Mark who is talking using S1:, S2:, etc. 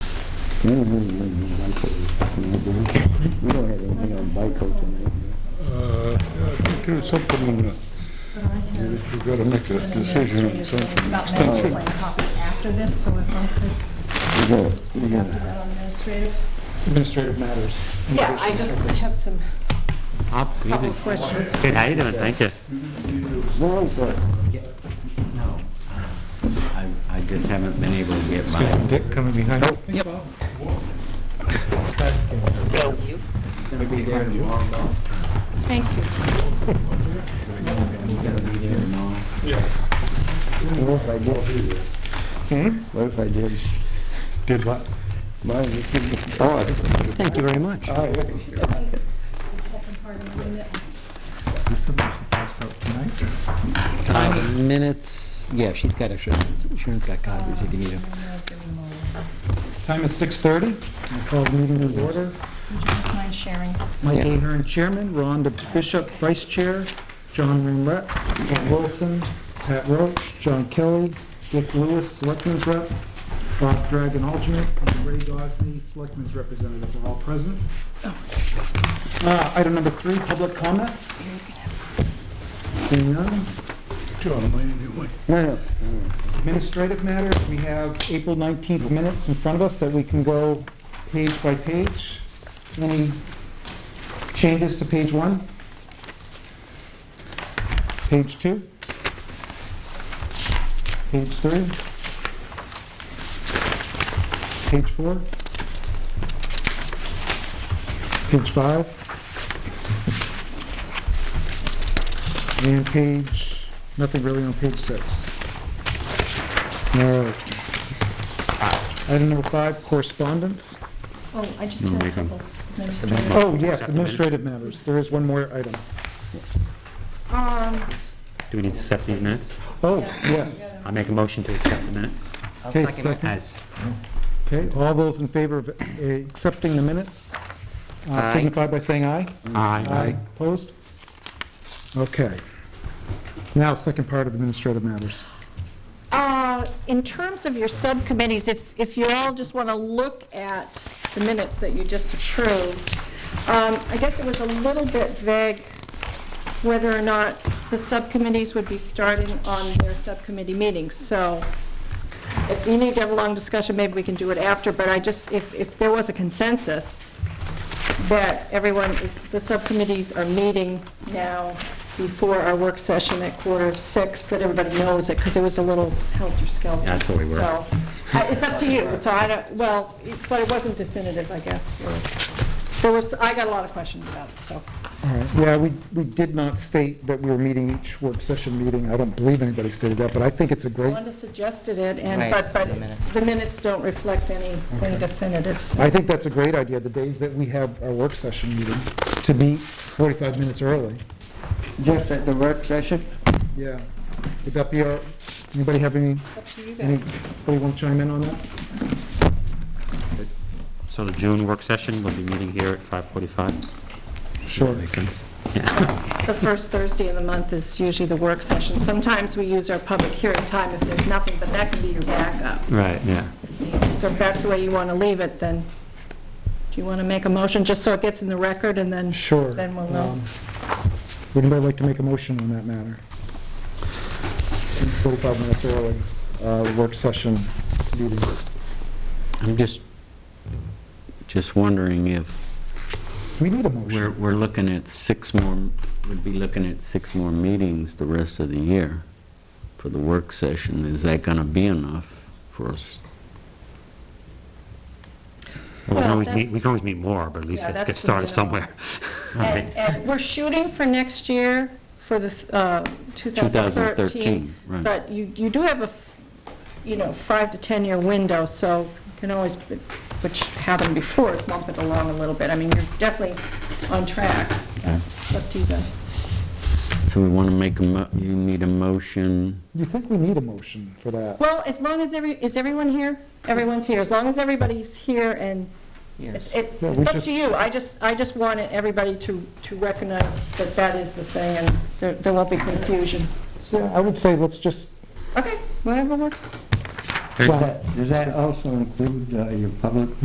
S1: We don't have anything on Bico. tonight, do We We don't have anything on Bico tonight.
S2: Uh, yeah, I think there's something on the, we've got to make a decision on something.
S3: About master plan copies after this, so if I
S1: We
S3: could
S1: got, we
S3: speak
S1: got,
S3: after that on administrative.
S4: Administrative matters.
S3: Yeah, I just have some
S5: Bob, good
S3: couple
S5: evening.
S3: of questions.
S5: Good, how you doing? Thank you.
S1: no, it's, uh,
S6: No. I, I just haven't been able to get
S4: Excuse
S6: my,
S4: me, Dick, coming behind. Yep.
S3: Thank you.
S1: what if I did?
S4: Hmm?
S1: What if I did?
S2: Did what?
S1: Mine, it could be- oh,
S5: Thank you very much.
S1: I- I-
S3: Second part of my minute.
S4: This is passed out tonight.
S5: Uh, Minutes, yeah, she's got extra, Sharon's got copies if you need them.
S3: I don't know if there were more.
S4: Time is 6:30. I call the meeting in order.
S3: Would you just mind sharing?
S4: Mike
S5: Yeah.
S4: Ahern, Chairman, Rhonda Bishop, Vice Chair, John Roulette, Pat Wilson, Pat Roach, John Kelly, Dick Lewis, Selectmen's Rep, Bob Dragon, Alternate, and Ray Gosney, Selectmen's Representative, are all present. Uh, Item number three, public comments. Seeing none.
S2: John Lane, anyway.
S1: No, no.
S4: Administrative matters, we have April 19th minutes in front of us that we can go page by page. Any changes to page one? Page two? Page three? Page four? Page five? And page, nothing really on page six. All right. Item number five, correspondence.
S3: Oh, I just had a couple administrative.
S4: Oh, yes, administrative matters. There is one more item.
S3: Um,
S5: Do we need to accept these minutes?
S4: Oh, yes.
S5: I'll make a motion to accept the minutes
S4: Okay, second.
S5: as,
S4: Okay, all those in favor of uh, accepting the minutes uh,
S5: Aye.
S4: signify by saying aye.
S5: aye.
S4: Opposed? Okay. Now, second part of administrative matters.
S3: Uh, In terms of your subcommittees, if, if you all just want to look at the minutes that you just approved, um, I guess it was a little bit vague whether or not the subcommittees would be starting on their subcommittee meetings. So if you need to have a long discussion, maybe we can do it after, but I just, if, if there was a consensus that everyone is, the subcommittees are meeting now before our work session at quarter of six, that everybody knows it, because it was a little helter-skelter.
S5: Yeah, that's what we were.
S3: So, I- it's up to you, so I don't, well, it- but it wasn't definitive, I guess, or, there was, I got a lot of questions about it, so.
S4: All right, yeah, we, we did not state that we were meeting each work session meeting. I don't believe anybody stated that, but I think it's a great
S3: Wanda suggested it, and,
S5: Right,
S3: but, but
S5: the minutes.
S3: the minutes don't reflect anything definitive, so.
S4: I think that's a great idea, the days that we have our work session meeting, to be 45 minutes early.
S1: Just at the work session?
S4: Yeah. Would that be, all- anybody have any,
S3: Up to you guys.
S4: anybody want to chime in on that?
S5: So the June work session, we'll be meeting here at 5:45.
S4: Sure.
S5: Makes sense? Yeah.
S3: The first Thursday of the month is usually the work session. Sometimes we use our public hearing time if there's nothing, but that can be your backup.
S5: Right, yeah.
S3: So if that's the way you want to leave it, then do you want to make a motion just so it gets in the record and then?
S4: Sure.
S3: Then we'll know.
S4: Um, Would anybody like to make a motion on that matter? 45 minutes early, uh, work session meetings.
S5: I'm just, just wondering if
S4: We need a
S6: we're,
S4: motion.
S6: we're looking at six more, we'd be looking at six more meetings the rest of the year for the work session. Is that gonna be enough for us?
S5: We can
S3: Well,
S5: always
S3: that's-
S5: meet, we can always meet more, but at least
S3: Yeah,
S5: let's get
S3: that's the
S5: started
S3: minimum.
S5: somewhere.
S3: And- and We're shooting for next year, for the uh, 2013.
S6: 2013, right.
S3: But you, you do have a, f- you know, five to 10-year window, so you can always, which happened before, is bump it along a little bit. I mean, you're definitely on track. It's Up to you guys.
S6: So we wanna make a, mo- you need a motion,
S4: You think we need a motion for that?
S3: Well, as long as every, is everyone here? Everyone's here, as long as everybody's here and it's, it-
S4: Yeah, we
S3: it's up
S4: just-
S3: to you. I just, I just wanted everybody to, to recognize that that is the thing and there, there won't be confusion.
S4: Yeah, I would say let's just,
S3: Okay, whatever works.
S4: well,
S1: Does that also include uh, your public